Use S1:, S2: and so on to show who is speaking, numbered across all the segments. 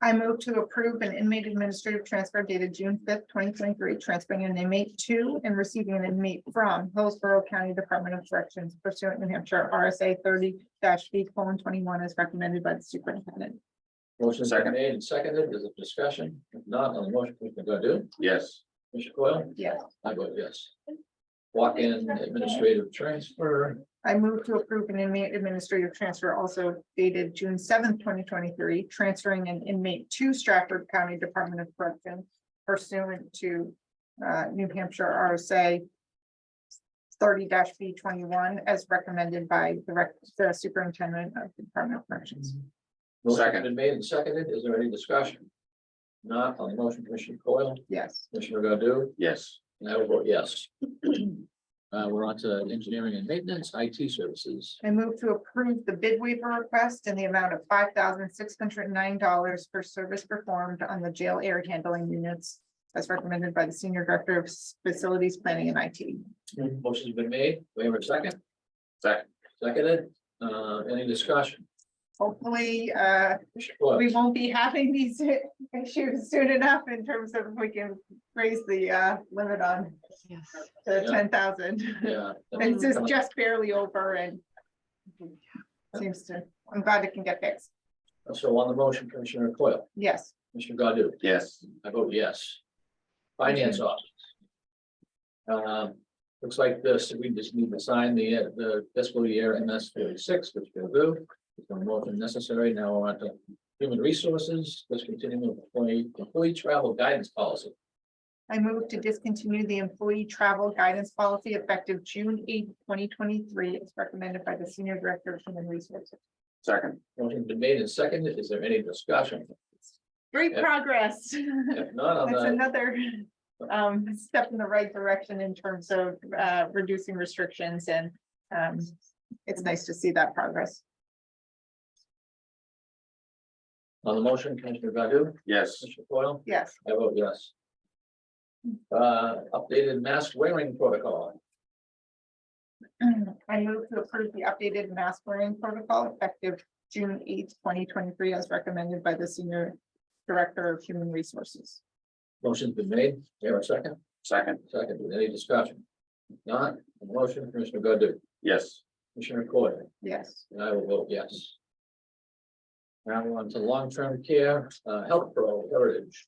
S1: I move to approve an inmate administrative transfer dated June fifth, twenty twenty-three, transferring an inmate to and receiving an inmate from Hillsborough County Department of Corrections pursuant New Hampshire RSA thirty V colon twenty-one as recommended by the superintendent.
S2: Motion's
S3: Second.
S2: been made and seconded. Is it discussion? If not, on the motion, Commissioner Godu?
S3: Yes.
S2: Commissioner Coyle?
S1: Yes.
S2: I vote yes. Walk-in administrative transfer.
S1: I move to approve an inmate administrative transfer also dated June seventh, twenty twenty-three, transferring an inmate to Stratford County Department of Corrections pursuant to uh, New Hampshire RSA thirty B twenty-one as recommended by the rec- the superintendent of the Department of Corrections.
S2: Motion's
S3: Second.
S2: been made and seconded. Is there any discussion? Not on the motion, Commissioner Coyle?
S1: Yes.
S2: Commissioner Godu?
S3: Yes.
S2: And I will vote yes. Uh, we're on to engineering and maintenance, IT services.
S1: I move to approve the bid waiver request in the amount of five thousand six hundred and nine dollars for service performed on the jail air handling units. As recommended by the Senior Director of Facilities Planning and IT.
S2: Motion's been made. We have a second,
S3: Second.
S2: seconded. Uh, any discussion?
S1: Hopefully, uh,
S2: Commissioner Coyle?
S1: we won't be having these issues soon enough in terms of if we can raise the, uh, limit on
S4: Yes.
S1: the
S2: Yeah.
S1: ten thousand.
S2: Yeah.
S1: This is just barely over and seems to, I'm glad it can get fixed.
S2: So on the motion, Commissioner Coyle,
S1: Yes.
S2: Commissioner Godu?
S3: Yes.
S2: I vote yes. Finance office. Um, looks like this, we just need to sign the, uh, the fiscal year MS thirty-six, which we'll do. It's no more than necessary. Now we're on to human resources, let's continue with employee, employee travel guidance policy.
S1: I move to discontinue the employee travel guidance policy effective June eighth, twenty twenty-three, as recommended by the Senior Director of Human Resources.
S3: Second.
S2: Motion's been made and seconded. Is there any discussion?
S1: Great
S2: Yeah.
S1: progress.
S2: If not, on
S1: That's
S2: the,
S1: another um step in the right direction in terms of uh reducing restrictions and um it's nice to see that progress.
S2: on the motion, Commissioner Godu?
S3: Yes.
S2: Commissioner Foil?
S1: Yes,
S2: I vote yes. Uh, updated mask wearing protocol.
S1: I move to approve the updated mask wearing protocol effective June eighth, twenty twenty-three, as recommended by the Senior Director of Human Resources.
S2: Motion's been made. Here a second.
S3: Second.
S2: Second, with any discussion? If Not, the motion, Commissioner Godu,
S3: Yes.
S2: Commissioner Coyle,
S1: Yes.
S2: and I will vote yes. Now we're on to long-term care, uh, health pro heritage.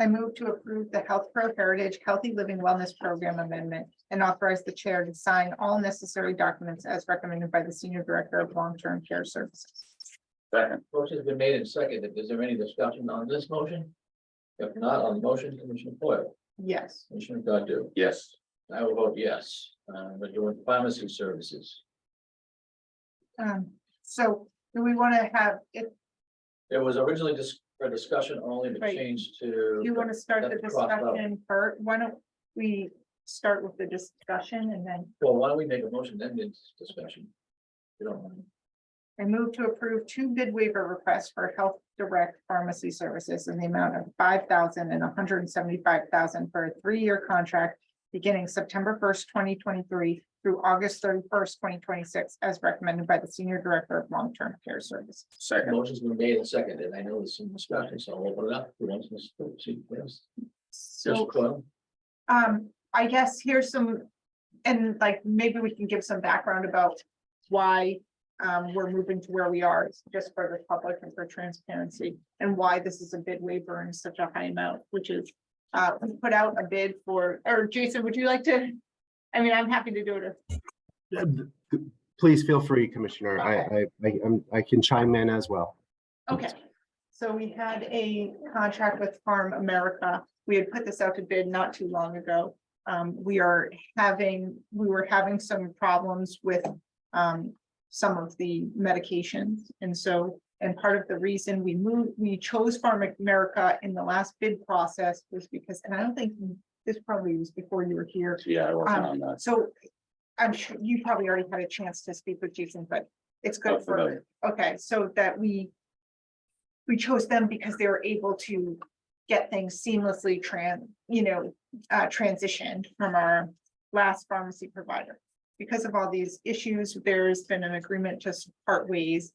S1: I move to approve the Health Pro Heritage Healthy Living Wellness Program Amendment and authorize the chair to sign all necessary documents as recommended by the Senior Director of Long-Term Care Services.
S3: Second.
S2: Motion's been made and seconded. Is there any discussion on this motion? If not, on the motion, Commissioner Coyle,
S1: Yes.
S2: Commissioner Godu,
S3: Yes.
S2: and I will vote yes. Uh, we're doing pharmacy services.
S1: Um, so do we want to have, if
S2: There was originally just a discussion only to
S1: Right.
S2: change to.
S1: you want to start the
S2: That's crossed out.
S1: discussion first, why don't we start with the discussion and then
S2: Well, why don't we make a motion then into discussion? You don't mind?
S1: I move to approve two bid waiver requests for Health Direct Pharmacy Services in the amount of five thousand and hundred and seventy-five thousand for a three-year contract beginning September first, twenty twenty-three through August thirty-first, twenty twenty-six, as recommended by the Senior Director of Long-Term Care Services.
S3: Second.
S2: Motion's been made and seconded. I know there's some discussion, so I'll open it up. Who wants to speak? See, yes. Mr.
S1: So,
S2: Coyle?
S1: um, I guess here's some, and like, maybe we can give some background about why um, we're moving to where we are, it's just for the public and for transparency, and why this is a bid waiver in such a high amount, which is, uh, we put out a bid for, or Jason, would you like to? I mean, I'm happy to do it.
S5: Uh, th- th- Please feel free, Commissioner. I, I, I- I'm- I can chime in as well.
S1: Okay, so we had a contract with Farm America. We had put this out to bid not too long ago. Um, we are having, we were having some problems with um some of the medications. And so, and part of the reason we moved, we chose Farm America in the last bid process was because, and I don't think this probably was before you were here.
S3: Yeah, I
S1: Um,
S3: wasn't on that.
S1: So I'm sure you probably already had a chance to speak with Jason, but it's
S3: Not
S1: good for,
S3: familiar.
S1: okay, so that we. We chose them because they were able to get things seamlessly tran, you know, uh, transitioned from our last pharmacy provider. Because of all these issues, there's been an agreement to part ways